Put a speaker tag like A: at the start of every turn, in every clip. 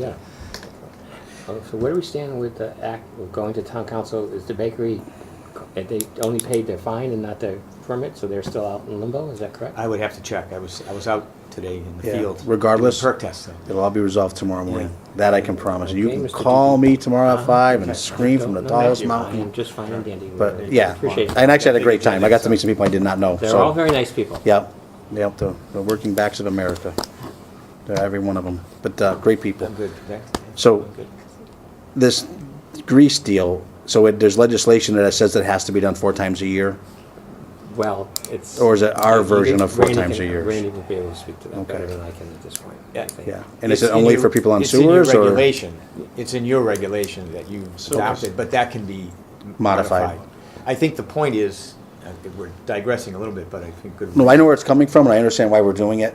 A: Yeah. Oh, So where do we stand with the act, of going to town council, is the bakery, eh, they only paid their fine and not their permit, so they're still out in limbo, is that correct?
B: I would have to check. I was, I was out today in the
C: Yeah,
B: field.
C: regardless.
B: doing Perk test, though.
C: It'll all be resolved tomorrow morning. That I can promise. You
A: Okay,
C: can
A: Mr.
C: call
A: Dickey.
C: me tomorrow at five and scream from the
A: No, no,
C: tallest
A: you're fine,
C: mountain.
A: Just fine and dandy.
C: But yeah,
A: Appreciate
C: and
A: it.
C: actually had a great time. I got to meet some people I did not know.
A: They're all
C: So,
A: very nice people.
C: yep, yep, the, the working backs of America. They're Every one of them, but uh, great people.
B: I'm good. Thanks.
C: So-
B: I'm good.
C: This grease deal, so it, there's legislation that says it has to be done four times a year?
A: Well, it's.
C: Or is it our
A: you
C: version
A: can-
C: of four
A: Randy
C: times
A: can-
C: a year?
A: Randy will be able to speak to that better
C: Okay.
A: than I can at this point. I
B: Yeah.
A: think.
C: Yeah. And is
B: It's
C: it
B: in
C: only
B: your-
C: for people on
B: it's in your
C: sewers or?
B: regulation. It's in your regulation that you adopted, but that can be
C: Modified.
B: modified. I think the point is, uh, we're digressing a little bit, but I think. good-
C: No, I know where it's coming from and I understand why we're doing it.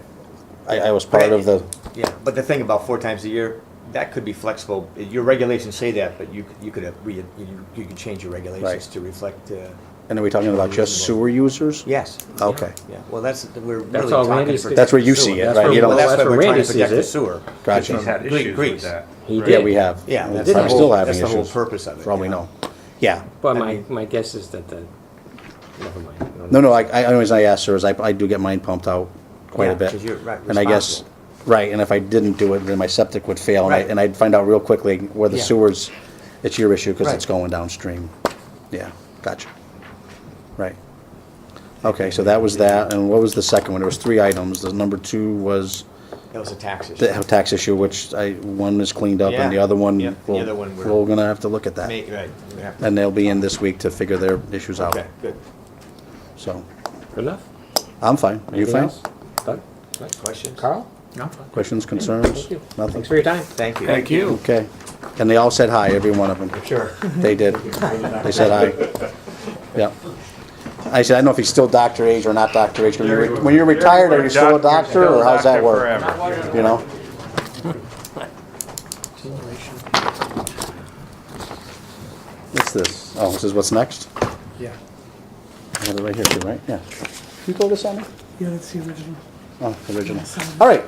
C: I, I was part of the,
B: Yeah, but the thing about four times a year, that could be flexible. Your regulations say that, but you, c- you could have, re- you, you could change your
C: Right.
B: regulations to reflect, uh,
C: and are we talking about just sewer users?
B: yes.
C: Okay.
B: Yeah, well, that's, we're really
A: all
B: talking.
A: Randy's
B: to
A: doing.
B: protect
C: That's where
B: the
C: you
B: sewer.
C: see it,
A: That's
C: right?
A: where-
C: You
B: Well,
C: don't,
A: that's
B: that's why
A: where
B: we're trying
A: Randy
B: to protect
A: sees
B: the
A: it.
B: sewer.
C: gotcha.
D: He's had
B: Great
D: issues
B: grief.
D: with that.
A: He
C: Yeah,
A: did.
C: we have.
B: Yeah,
C: And
B: that's
C: I'm
B: the
C: still
B: whole-
C: having
B: that's the whole
C: issues,
B: purpose of it,
C: For all we
B: yeah.
C: know. Yeah.
A: But
B: I
A: my,
B: mean-
A: my guess is that the, never mind.
C: No, no, I, I, always I ask sir is I, I do get mine pumped out quite
B: Yeah,
C: a bit.
B: 'cause you're, right,
C: And I guess,
B: responsible.
C: right, and if I didn't do it, then my septic would fail. and I-
B: Right.
C: And I'd find out real quickly where the
B: Yeah.
C: sewers, it's your issue because it's
B: Right.
C: going downstream. Yeah, gotcha. Right. Okay, so that was that. And what was the second one? There was three items. The number two was
B: That was a tax issue.
C: the tax issue, which I, one is cleaned up and the
B: Yeah.
C: other one,
B: Yeah, the
C: we'll-
B: other one we're-
C: we're gonna have to look at that.
B: Make- right, we have to-
C: And they'll be in this week to figure their issues out,
B: Okay, good.
C: so.
A: Good enough?
C: I'm fine. Are you
A: Anything
C: fine?
A: else? Doug? Mike?
B: Questions?
A: Carl?
C: Questions, concerns?
A: Thank you.
C: Nothing?
A: Thanks for your time.
B: Thank you.
D: Thank you.
C: Okay. And they all said hi, every one of them.
B: Sure.
C: They did. They said hi. Yep. I said, I don't know if he's still Dr. Age or not Dr. Age. When you're re- when you're retired, are you still a doctor or how's that work? You know? What's this? Oh, this is what's next?
E: Yeah.
C: I have it right here too, right? Yeah. You told us on it?
E: Yeah, that's the original.
C: Oh, original. All right.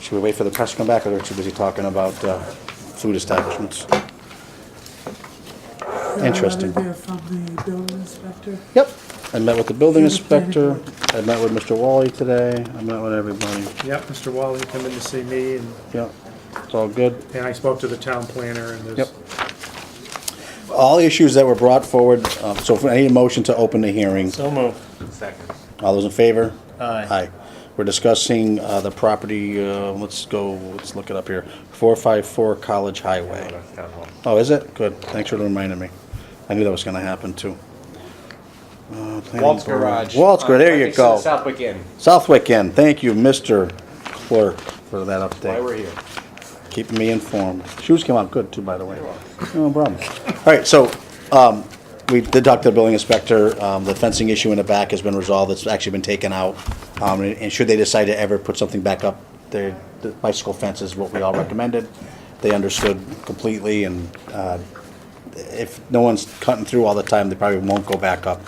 C: Should we wait for the press to come back, or they're too busy talking about uh, food establishments? Interesting.
E: They're from the building inspector.
C: Yep. I met with the building
E: Through the planning
C: inspector.
E: board.
C: I met with Mr. Wally today. I met with everybody.
F: Yep, Mr. Wally come in to see me, and,
C: Yep. It's all good.
F: and I spoke to the town planner, and there's,
C: Yep. All issues that were brought forward, uh, so if I need a motion to open the hearing.
D: So moved. Second.
C: All those in favor?
D: Aye.
C: Aye. We're discussing uh, the property, uh, let's go, let's look it up here. 454 College Highway. Oh, is it? Good. Thanks for reminding me. I knew that was gonna happen too. Uh, planning
B: Walt's
C: board.
B: Garage. Uh,
C: Walt's Garage, there you go.
B: Southwick Inn,
C: Southwick Inn, thank you, Mr. Clerk, for that
B: why we're
C: update.
B: here.
C: Keeping me informed. Shoes came out good too, by the way. No problem. All right, so, um, we did talk to the building inspector. Um, the fencing issue in the back has been resolved. It's actually been taken out. Um, and and should they decide to ever put something back up, their, the bicycle fence is what we all recommended. They understood completely and, uh, if no one's cutting through all the time, they probably won't go back up.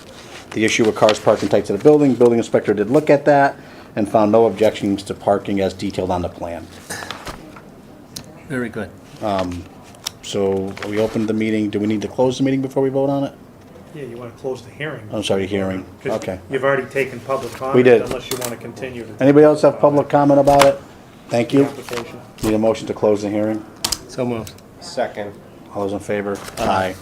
C: The issue with cars parking tight to the building, building inspector did look at that and found no objections to parking as detailed on the plan.
D: Very good.
C: So we opened the meeting. Do we need to close the meeting before we vote on it?
F: yeah, you want to close the hearing.
C: I'm sorry, hearing.
F: 'cause
C: Oh, Okay.
F: You've already taken public comment.
C: did.
F: Unless you want to continue to.
C: Anybody else have public comment about it? Thank you.
F: Application.
C: Need a motion to close the hearing?
D: So moved.
B: Second.
C: All those in favor? Aye.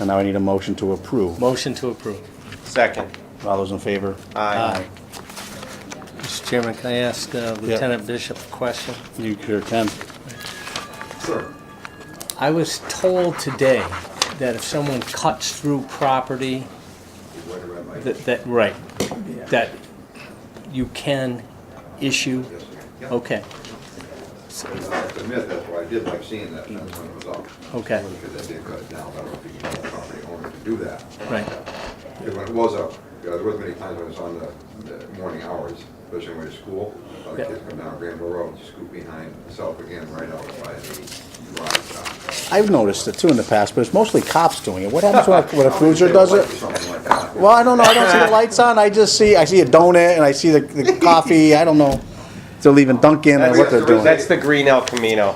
C: And now I need a motion to approve.
D: Motion to approve.
B: Second.
C: All those in favor?
B: Aye.
D: Mr. Chairman, can I ask uh, Lieutenant Bishop a question?
C: You clear ten.
D: I was told today that if someone cuts through property, that, that, right, that you can issue, okay,
G: That's a myth, that's why I did like seeing that, that's when it was up.
D: Okay.
G: Because they did cut it down, that would be the property owner to do that.
D: right,
G: Because when it was up, you know, there was many times when it was on the, the morning hours, especially when we were at school, all the
D: Yeah.
G: kids come down Granville Road, just scoop behind South again, right out by the garage.
C: I've noticed it too in the past, but it's mostly cops doing it. What happens when a- when a cruiser does it?
G: Something like that.
C: Well, I don't know. I don't see the lights on. I just see, I see a donut and I see the, the coffee. I don't know. they're leaving Dunkin' or what they're doing.
H: That's the Green El Camino.